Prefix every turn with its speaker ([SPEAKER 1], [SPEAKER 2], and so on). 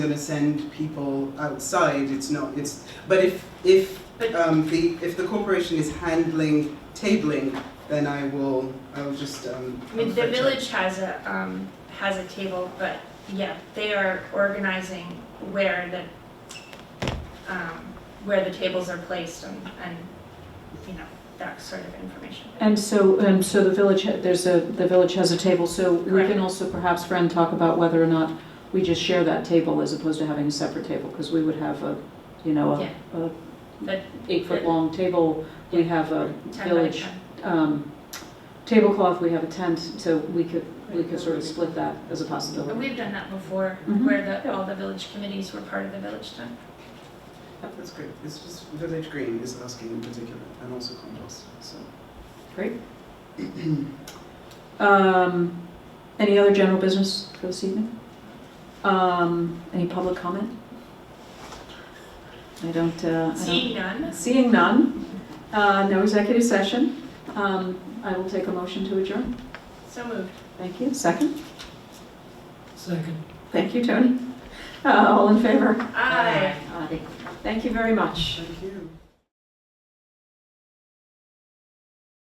[SPEAKER 1] gonna send people outside, it's not, it's, but if, if,
[SPEAKER 2] But-
[SPEAKER 1] um, the, if the corporation is handling tabling, then I will, I will just, um.
[SPEAKER 2] I mean,
[SPEAKER 1] I'll
[SPEAKER 2] the
[SPEAKER 1] fetch
[SPEAKER 2] village has a, um, has a table, but yeah, they are organizing where the, um, where the tables are placed and, and, you know, that sort of information.
[SPEAKER 3] And so, and so the village, ha- there's a, the village has a table, so we
[SPEAKER 2] Correct.
[SPEAKER 3] can also perhaps, Fran, talk about whether or not we just share that table as opposed to having a separate table, because we would have a, you know,
[SPEAKER 2] Yeah.
[SPEAKER 3] a, a
[SPEAKER 2] But
[SPEAKER 3] eight-foot-long table, we have a
[SPEAKER 2] ten by
[SPEAKER 3] village,
[SPEAKER 2] ten.
[SPEAKER 3] um, tablecloth, we have a tent, so we could, we could sort of split that as a
[SPEAKER 2] But
[SPEAKER 3] possibility.
[SPEAKER 2] we've done that before,
[SPEAKER 3] Mhm.
[SPEAKER 2] where the, all the village committees were part of the village tent.
[SPEAKER 1] it. That's great, it's just Village Green is asking in particular, and also Compost, so.
[SPEAKER 3] Great. Um, any other general business for this evening? Um, any public comment? I don't, uh, I don't.
[SPEAKER 2] Seeing none,
[SPEAKER 3] Seeing none, uh, no executive session, um, I will take a motion to adjourn.
[SPEAKER 2] so moved.
[SPEAKER 3] Thank you. Second?
[SPEAKER 4] Second.
[SPEAKER 3] Thank you, Tony. Uh, All in favor?
[SPEAKER 2] Aye.
[SPEAKER 3] Aye. Thank you very much.
[SPEAKER 1] Thank you.